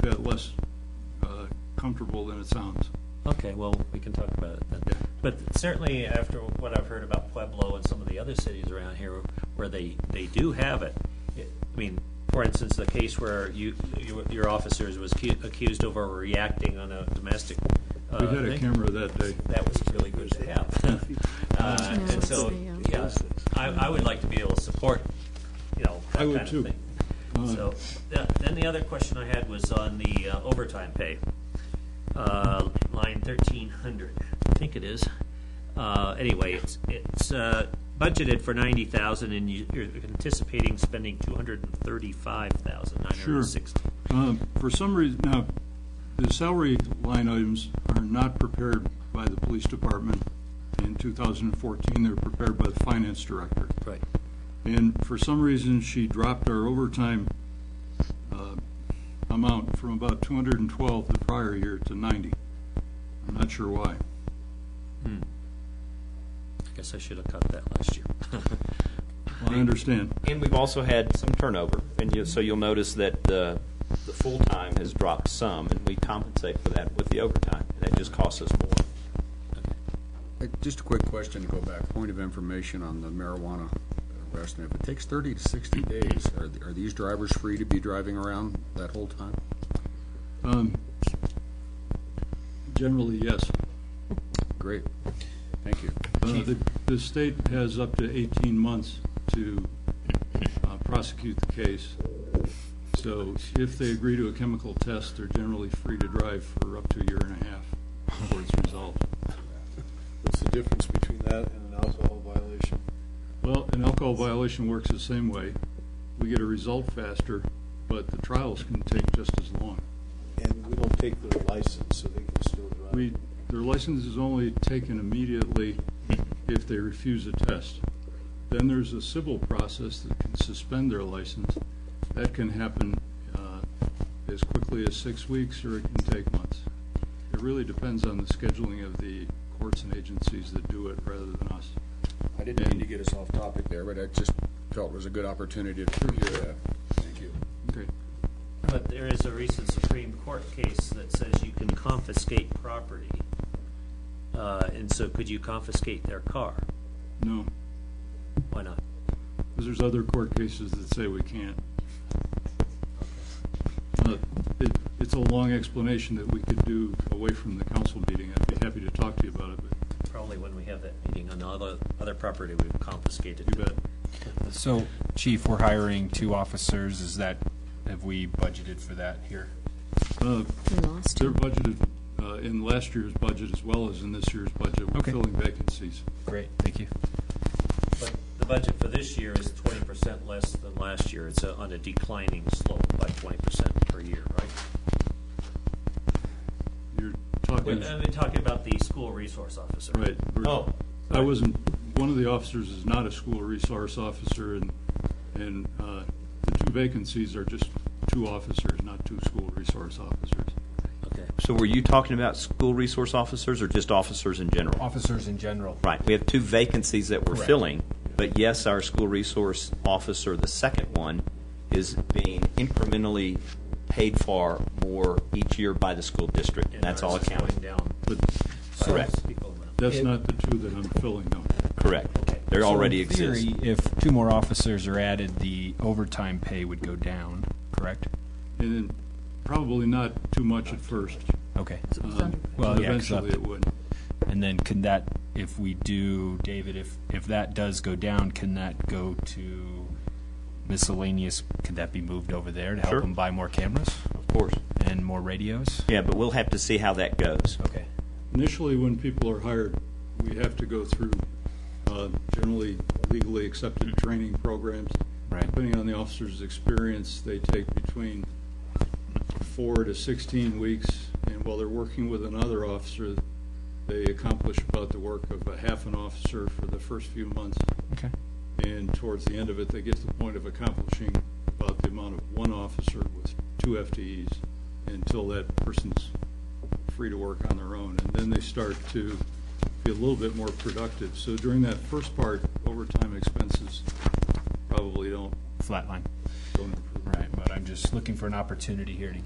bit less uh, comfortable than it sounds. Okay, well, we can talk about it then. But certainly after what I've heard about Pueblo and some of the other cities around here where they, they do have it, it- I mean, for instance, the case where you, you- your officers was cu- accused of overreacting on a domestic. uh, We had a thing. camera that day. That was really good to have. Uh, Yeah, And so, it's the, yeah, I, I would like to be able to support, you know, that I would kind of too. thing. So, th- then the other question I had was on the uh, overtime pay. Uh, Line thirteen hundred, I think it is. Uh, Anyway, it's, it's uh, budgeted for ninety thousand and you- you're anticipating spending two hundred and thirty-five thousand nine hundred and sixty. Um, For some reason, now, the salary line items are not prepared by the police department in 2014. They're prepared by the finance director. Right. And for some reason, she dropped our overtime uh, amount from about 212 the prior year to 90. I'm not sure why. I guess I should have cut that last year. I understand. And we've also had some turnover, and you, so you'll notice that the, the full-time has dropped some, and we compensate for that with the overtime, and that just costs us more. Uh, Just a quick question to go back, point of information on the marijuana arrest. If it takes 30 to 60 days, are th- are these drivers free to be driving around that whole time? Generally, yes. Great, thank you. Uh, The the state has up to 18 months to uh, prosecute the case. So if they agree to a chemical test, they're generally free to drive for up to a year and a half before it's resolved. What's the difference between that and an alcohol violation? Well, an alcohol violation works the same way. We get a result faster, but the trials can take just as long. And we don't take their license, so they can still drive. We, their license is only taken immediately if they refuse a test. Then there's a civil process that can suspend their license. That can happen uh, as quickly as six weeks, or it can take months. It really depends on the scheduling of the courts and agencies that do it rather than us. I didn't mean to get us off topic there, but I just felt it was a good opportunity to hear that. Thank you. Okay. But there is a recent Supreme Court case that says you can confiscate property. Uh, and so could you confiscate their car? No, Why not? because there's other court cases that say we can't. Uh, it- It's a long explanation that we could do away from the council meeting. I'd be happy to talk to you about it, but Probably when we have that meeting on the other, other property we've confiscated. You bet. So, chief, we're hiring two officers, is that, have we budgeted for that here? Uh, We lost They're him. budgeted uh, in last year's budget as well as in this year's budget. We're Okay. filling vacancies. Great, thank you. But the budget for this year is twenty percent less than last year. It's uh, on a declining slope by twenty percent per year, right? You're talking, We're, I'm talking about the school resource officer. right. we're- uh, Oh, I wasn't, one of the officers is not a school resource officer, and, and uh, the two vacancies are just two officers, not two school resource officers. Okay. So were you talking about school resource officers or just officers in general? Officers in general. Right, we have two vacancies that we're Correct. filling, but yes, our school resource officer, the second one, is being incrementally paid for more each year by the school district, and that's all ours is accounted. Going down. But by Correct. those equal amount. that's It- not the two that I'm filling, though. Correct. They already exist. So in theory, if two more officers are added, the overtime pay would go down, correct? And then probably not too much at first. Okay. um, Well, but yeah, 'cause Eventually up- it would. And then can that, if we do, David, if, if that does go down, can that go to miscellaneous, could that be moved over there to help Sure. them buy more cameras Of course. and more radios? Yeah, but we'll have to see how that goes. Okay. Initially, when people are hired, we have to go through uh, generally legally accepted training programs. Right. Depending on the officer's experience, they take between four to 16 weeks, and while they're working with another officer, they accomplish about the work of a half an officer for the first few months, Okay. and towards the end of it, they get to the point of accomplishing about the amount of one officer with two FTEs until that person's free to work on their own, and then they start to be a little bit more productive. So during that first part, overtime expenses probably don't, Flatline. don't improve. Right, but I'm just looking for an opportunity here to